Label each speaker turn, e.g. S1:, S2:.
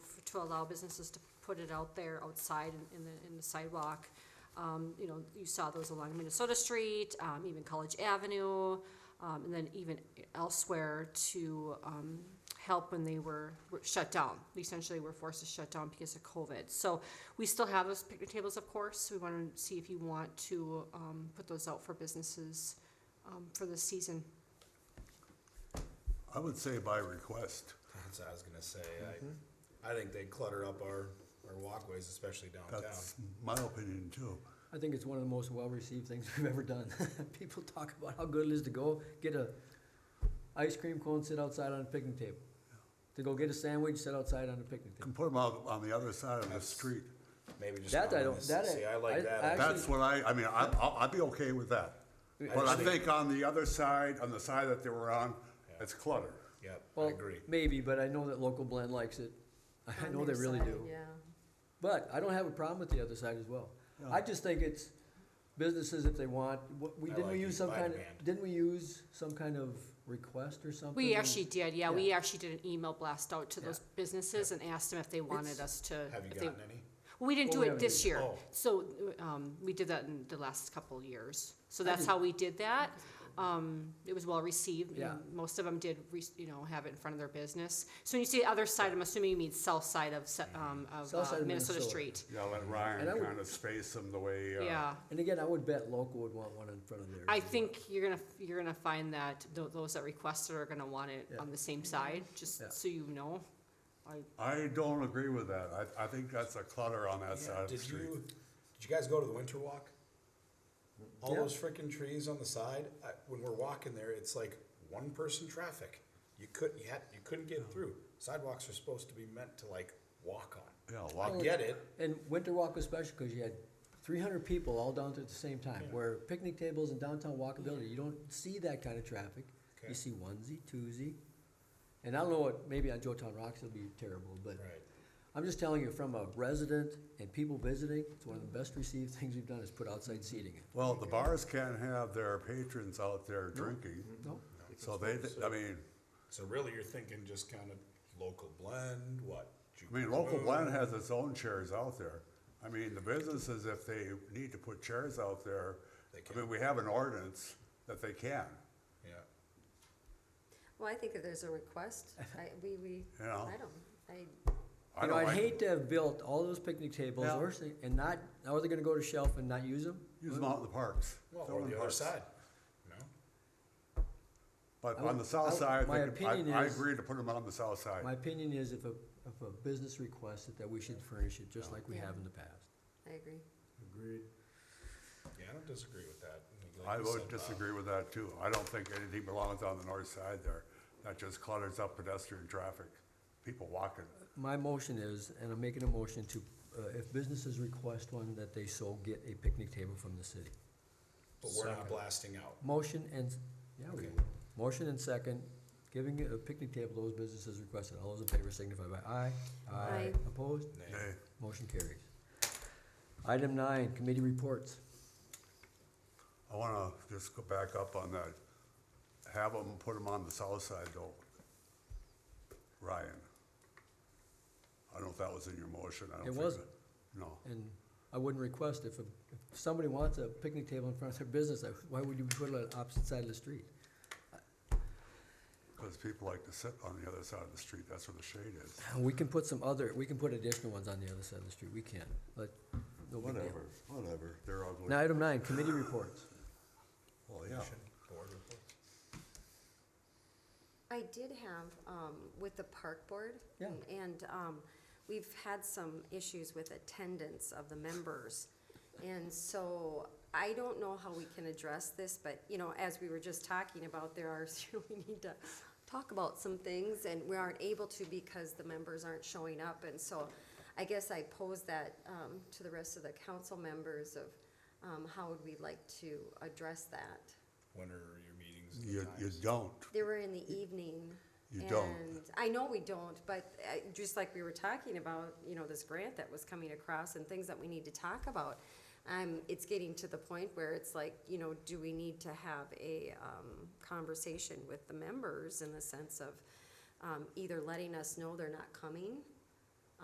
S1: to allow businesses to put it out there outside in, in the, in the sidewalk. Um, you know, you saw those along Minnesota Street, um, even College Avenue, um, and then even elsewhere to, um, help when they were were shut down. They Essentially, were forced to shut down because of COVID. So we still have those picnic tables, of course. We want to see if you want to, um, put those out for businesses, um, for this season.
S2: I would say by request.
S3: That's what I was gonna say. I, I think they clutter up our, our walkways, especially downtown.
S2: That's my opinion too.
S4: I think it's one of the most well-received things we've ever done. People talk about how good it is to go get a ice cream cone, sit outside on a picnic table. To go get a sandwich, sit outside on a picnic
S2: Can
S4: table.
S2: put them out on the other side of the
S3: That's-
S2: street.
S3: Maybe just.
S4: That
S3: not
S4: I
S3: on
S4: don't-
S3: this-
S4: that I-
S3: See, I like
S4: I-
S3: that.
S4: I-
S2: That's what I, I mean, I, I'll- I'd be okay with that. But I
S3: Actually-
S2: think on the other side, on the side that they were on, it's clutter.
S3: Yep, I
S4: Well,
S3: agree.
S4: Maybe, but I know that local blend likes it. I know they really do. But I don't have a problem with the other side as well. I just think it's businesses if they want, what, we,
S3: I
S4: didn't
S3: like
S4: we use
S3: it,
S4: some
S3: by
S4: kind of,
S3: demand.
S4: didn't we use some kind of request or something?
S1: We actually did, yeah, we
S4: Mm-hmm. Yeah.
S1: actually did an email blast out to those businesses and asked them if they wanted us to.
S3: Have you
S1: if they-
S3: gotten any?
S1: We didn't
S4: Well,
S1: do
S4: we
S1: it
S4: haven't
S1: this
S4: done
S1: year,
S3: Oh.
S1: so, um, we did that in the last couple of years, so that's
S4: did-
S1: how we did that. Um, it was well received,
S4: Yeah.
S1: and most of them did, re- you know, have it in front of their business. So when you say other side, I'm assuming you mean south side of, Se- um, of
S4: South
S1: uh,
S4: side of
S1: Minnesota
S4: Minnesota.
S1: Street,
S2: Yeah, let
S3: Mm-hmm.
S4: And I
S2: Ryan
S4: would-
S2: kind of space them the way, uh,
S1: yeah.
S4: And again, I would bet local would want one in front of theirs.
S1: I think you're gonna, you're gonna find that tho- those that requested are gonna want it
S4: Yeah.
S1: on the same side, just
S4: Yeah.
S1: so you know. I,
S2: I don't agree with that. I, I think that's a clutter on that side of the
S3: Did you,
S2: street.
S3: did you guys go to the winter walk? All
S4: Yeah.
S3: those frickin' trees on the side, I, when we're walking there, it's like one person traffic. You couldn't, you had, you couldn't get through. Sidewalks are supposed to be meant to like walk on.
S2: Yeah,
S3: I
S2: walk,
S3: get it,
S4: And Winter Walk was special because you had three hundred people all down there at the same time, where picnic tables and downtown walkability, you don't see that kind of traffic.
S3: Okay.
S4: You see onesie, twosie, and I don't know what, maybe on Joetown Rocks it'll be terrible, but
S3: right.
S4: I'm just telling you, from a resident and people visiting, it's one of the best received things we've done is put outside seating.
S2: well, the bars can't have their patrons out there drinking,
S4: No,
S2: so they, I mean,
S3: So really, you're thinking just kind of local blend, what?
S2: I mean, local blend has its own chairs out there. I mean, the businesses, if they need to put chairs out there,
S3: They
S2: I mean, we have an ordinance that they can,
S3: Yeah,
S5: Well, I think if there's a request, I, we, we,
S2: you know?
S5: I don't, I,
S2: I
S4: You know,
S2: don't
S4: I'd
S2: like-
S4: hate to have built all those picnic tables
S2: Yeah.
S4: or, si- and not, now are they gonna go to shelf and not use them?
S2: Use them out in the parks.
S3: well,
S2: Throw
S3: or
S2: them in
S3: the other
S2: parks.
S3: side, no?
S2: But
S4: I
S2: on
S4: would-
S2: the south
S4: I-
S2: side,
S4: my
S2: they could-
S4: opinion
S2: I, I
S4: is-
S2: agree to put them on the south
S4: My
S2: side.
S4: opinion is if a, if a business requests it, that we should furnish it, just like we
S5: Yeah.
S4: have in the past.
S5: I agree.
S4: Agreed.
S3: Yeah, I don't disagree with that. Like
S2: I
S3: you
S2: would
S3: said, uh,
S2: disagree with that too. I don't think anything belongs on the north side there. That just clutters up pedestrian traffic, people walking.
S4: My motion is, and I'm making a motion to, uh, if businesses request one, that they so get a picnic table from the city.
S3: Bob, But we're not blasting out.
S4: Motion and, yeah, we,
S3: Okay.
S4: motion and second, giving a picnic table, those businesses requested, all those in favor signify by aye.
S5: Aye.
S4: Opposed?
S3: Nay.
S2: Hey,
S4: Motion carries. Item nine, committee reports.
S2: I wanna just go back up on that. Have them, put them on the south side though. Ryan. I don't know if that was in your motion. I don't
S4: It
S2: think
S4: wasn't.
S2: that- No.
S4: And I wouldn't request if, a- if somebody wants a picnic table in front of their business, I- why would you put it on the opposite side of the street?
S2: Cause people like to sit on the other side of the street. That's where the shade is.
S4: We can put some other, we can put additional ones on the other side of the street, we can, but no big deal.
S2: Whatever, whatever. They're ugly.
S4: Now, item nine, committee reports.
S2: Well, yeah.
S3: Board report.
S5: I did have, um, with the park board.
S4: Yeah.
S5: And, um, we've had some issues with attendance of the members. And so I don't know how we can address this, but, you know, as we were just talking about, there are, we need to talk about some things and we aren't able to because the members aren't showing up. And so I guess I pose that, um, to the rest of the council members of, um, how would we like to address that?
S3: When are your meetings? and the
S2: You, you
S3: times?
S2: don't.
S5: They were in the evening.
S2: You don't.
S5: And I know we don't, but uh, just like we were talking about, you know, this grant that was coming across and things that we need to talk about. Um, it's getting to the point where it's like, you know, do we need to have a, um, conversation with the members in the sense of, um, either letting us know they're not coming